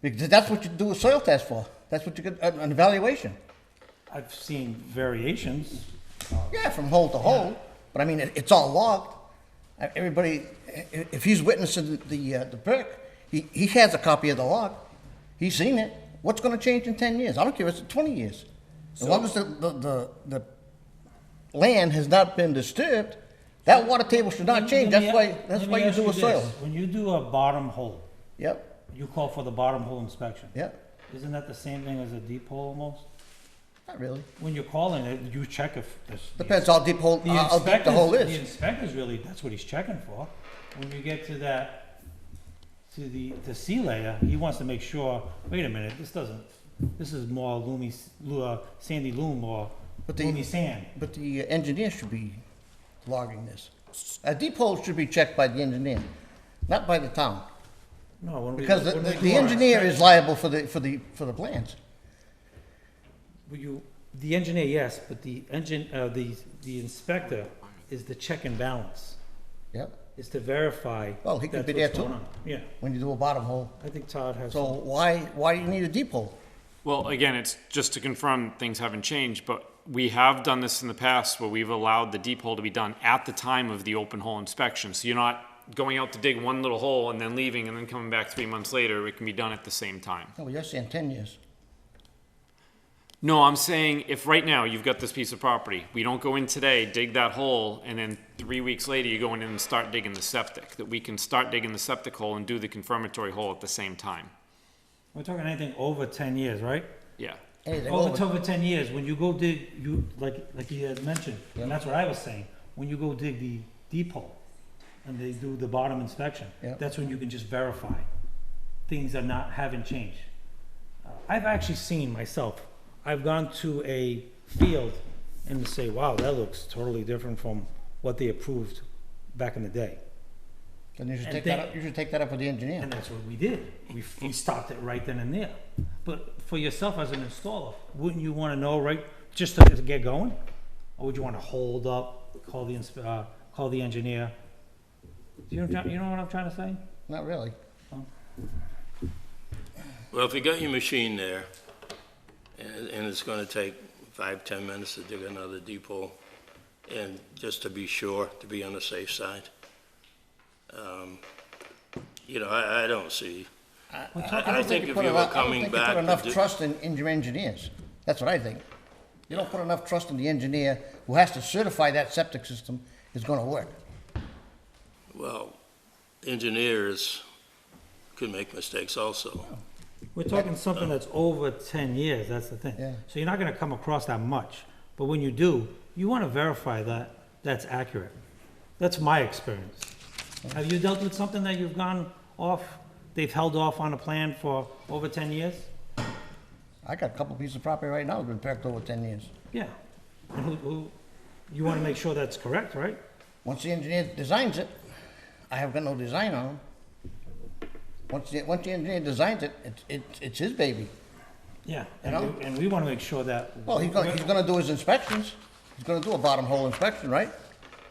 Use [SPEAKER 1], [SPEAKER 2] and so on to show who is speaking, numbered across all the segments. [SPEAKER 1] Because that's what you do a soil test for. That's what you get, uh, an an evaluation.
[SPEAKER 2] I've seen variations.
[SPEAKER 1] Yeah, from hole to hole, but I mean, it, it's all logged. Uh, Everybody, i- i- if he's witnessing the, the, uh, the perk, he, he has a copy of the log. He's seen it. What's gonna change in ten years? I don't care if it's twenty years. As long as the, the, the, the land has not been disturbed, that water table should not change.
[SPEAKER 2] Let me
[SPEAKER 1] That's
[SPEAKER 2] a-
[SPEAKER 1] why, that's
[SPEAKER 2] let
[SPEAKER 1] why
[SPEAKER 2] me
[SPEAKER 1] you
[SPEAKER 2] ask
[SPEAKER 1] do a
[SPEAKER 2] this.
[SPEAKER 1] soil.
[SPEAKER 2] When you do a bottom hole,
[SPEAKER 1] Yep,
[SPEAKER 2] you call for the bottom hole inspection.
[SPEAKER 1] yep,
[SPEAKER 2] Isn't that the same thing as a deep hole almost?
[SPEAKER 1] not really.
[SPEAKER 2] When you're calling it, you check if this.
[SPEAKER 1] Depends how deep hole,
[SPEAKER 2] The
[SPEAKER 1] how how deep the
[SPEAKER 2] inspectors-
[SPEAKER 1] hole
[SPEAKER 2] The
[SPEAKER 1] is.
[SPEAKER 2] inspector's really, that's what he's checking for. When you get to that, to the, the sea layer, he wants to make sure, wait a minute, this doesn't, this is more loomy, s- lu- uh, sandy loam or
[SPEAKER 1] But the-
[SPEAKER 2] loomy sand.
[SPEAKER 1] But the uh, engineer should be logging this. A deep hole should be checked by the engineer, not by the town.
[SPEAKER 2] No, when we.
[SPEAKER 1] Because the,
[SPEAKER 2] when we
[SPEAKER 1] the
[SPEAKER 2] do
[SPEAKER 1] the
[SPEAKER 2] our
[SPEAKER 1] engineer
[SPEAKER 2] inspection-
[SPEAKER 1] is liable for the, for the, for the plans.
[SPEAKER 2] Well, You, the engineer, yes, but the engine, uh, the, the inspector is the check and balance,
[SPEAKER 1] Yep.
[SPEAKER 2] is to verify.
[SPEAKER 1] Well, he could
[SPEAKER 2] that's
[SPEAKER 1] be there
[SPEAKER 2] what's going
[SPEAKER 1] too.
[SPEAKER 2] on. Yeah,
[SPEAKER 1] When you do a bottom hole.
[SPEAKER 2] I think Todd has.
[SPEAKER 1] So why, why do you need a deep hole?
[SPEAKER 3] Well, again, it's just to confirm things haven't changed, but we have done this in the past where we've allowed the deep hole to be done at the time of the open hole inspection. So you're not going out to dig one little hole and then leaving and then coming back three months later. It can be done at the same time.
[SPEAKER 1] Oh, you're saying ten years.
[SPEAKER 3] No, I'm saying if right now you've got this piece of property, we don't go in today, dig that hole, and then three weeks later you go in and start digging the septic, that we can start digging the septic hole and do the confirmatory hole at the same time.
[SPEAKER 2] We're talking anything over ten years, right?
[SPEAKER 3] Yeah.
[SPEAKER 1] Anything
[SPEAKER 2] Over,
[SPEAKER 1] over,
[SPEAKER 2] over ten years, when you go dig, you, like, like you had mentioned, and that's what I was saying, when you go dig the deep hole and they do the bottom inspection,
[SPEAKER 1] Yeah.
[SPEAKER 2] that's when you can just verify things are not, haven't changed. Uh, I've actually seen myself, I've gone to a field and say, wow, that looks totally different from what they approved back in the day.
[SPEAKER 1] then you should
[SPEAKER 2] and
[SPEAKER 1] take that
[SPEAKER 2] think-
[SPEAKER 1] up, you should take that up with the engineer.
[SPEAKER 2] And that's what we did. We, f- we stopped it right then and there. But for yourself as an installer, wouldn't you want to know right just to to get going? Or would you want to hold up, call the insp- uh, call the engineer? Do you know, what I'm try- you know what I'm trying to say?
[SPEAKER 1] Not really.
[SPEAKER 4] Well, if you got your machine there, and, and it's gonna take five, ten minutes to dig another deep hole, and just to be sure, to be on the safe side, um, you know, I, I don't see,
[SPEAKER 2] We're
[SPEAKER 4] I-
[SPEAKER 2] talking
[SPEAKER 4] I
[SPEAKER 1] don't
[SPEAKER 4] think if
[SPEAKER 1] put
[SPEAKER 4] you
[SPEAKER 1] enough-
[SPEAKER 4] were
[SPEAKER 1] I don't
[SPEAKER 4] coming
[SPEAKER 1] think you
[SPEAKER 4] back
[SPEAKER 1] Put
[SPEAKER 4] to
[SPEAKER 1] enough
[SPEAKER 4] do-
[SPEAKER 1] trust in, in your engineers. That's what I think. You don't put enough trust in the engineer who has to certify that septic system is gonna work.
[SPEAKER 4] well, engineers could make mistakes also.
[SPEAKER 2] We're talking something that's over ten years, that's the thing.
[SPEAKER 1] Yeah.
[SPEAKER 2] So you're not gonna come across that much, but when you do, you wanna verify that that's accurate. That's my experience. Have you dealt with something that you've gone off, they've held off on a plan for over ten years?
[SPEAKER 1] I got a couple pieces of property right now that's been perked over ten years.
[SPEAKER 2] Yeah. And who, who, you wanna make sure that's correct, right?
[SPEAKER 1] Once the engineer designs it, I have got no design on him. Once the, once the engineer designs it, it's, it's, it's his baby.
[SPEAKER 2] Yeah,
[SPEAKER 1] You
[SPEAKER 2] and
[SPEAKER 1] know?
[SPEAKER 2] we, and we wanna make sure that.
[SPEAKER 1] Well, he's gonna, he's gonna do his inspections. He's gonna do a bottom hole inspection, right?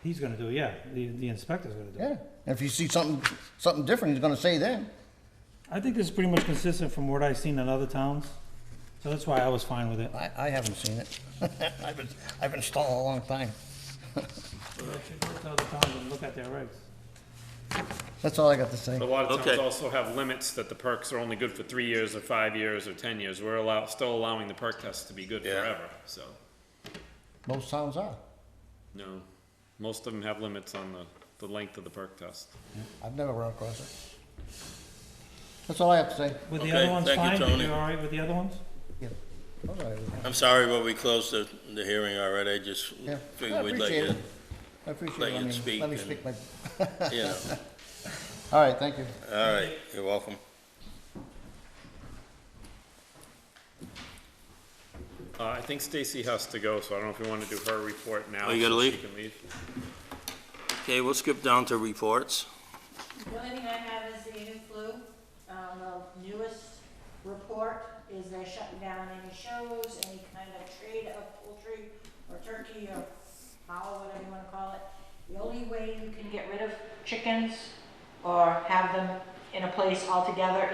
[SPEAKER 2] He's gonna do, it, yeah, the, the inspector's gonna do it.
[SPEAKER 1] Yeah. And if he sees something, something different, he's gonna say then.
[SPEAKER 2] I think this is pretty much consistent from what I've seen in other towns, so that's why I was fine with it.
[SPEAKER 1] I, I haven't seen it. I've been, I've been installed a long time.
[SPEAKER 2] Tell the towns to look at their regs.
[SPEAKER 1] That's all I got to say.
[SPEAKER 3] A lot of towns
[SPEAKER 4] Okay.
[SPEAKER 3] also have limits that the perks are only good for three years or five years or ten years. We're allow, still allowing the perk test to be good
[SPEAKER 4] Yeah.
[SPEAKER 3] forever, so,
[SPEAKER 1] Most towns are.
[SPEAKER 3] no. Most of them have limits on the, the length of the perk test.
[SPEAKER 1] I've never run across it. That's all I have to say.
[SPEAKER 2] Were the
[SPEAKER 4] Okay,
[SPEAKER 2] other ones
[SPEAKER 4] thank you,
[SPEAKER 2] fine? Did
[SPEAKER 4] Tony.
[SPEAKER 2] you all right with the other ones?
[SPEAKER 1] Yeah. All right.
[SPEAKER 4] I'm sorry, but we closed the, the hearing already, I just
[SPEAKER 1] Yeah. I
[SPEAKER 4] figured we'd let
[SPEAKER 1] appreciate
[SPEAKER 4] you,
[SPEAKER 1] it. I appreciate it.
[SPEAKER 4] let
[SPEAKER 1] I
[SPEAKER 4] you
[SPEAKER 1] mean,
[SPEAKER 4] speak
[SPEAKER 1] Let me
[SPEAKER 4] and-
[SPEAKER 1] speak my,
[SPEAKER 4] you know,
[SPEAKER 1] all right, thank you.
[SPEAKER 4] all right, you're welcome.
[SPEAKER 3] Uh, I think Stacy has to go, so I don't know if you wanna do her report now.
[SPEAKER 4] Oh, you gotta
[SPEAKER 3] so she
[SPEAKER 4] leave?
[SPEAKER 3] can leave.
[SPEAKER 4] Okay, we'll skip down to reports.
[SPEAKER 5] The only thing I have is the new flu. Um, the newest report is they're shutting down any shows, any kind of trade of poultry or turkey or fowl, whatever you wanna call it. The only way you can get rid of chickens or have them in a place altogether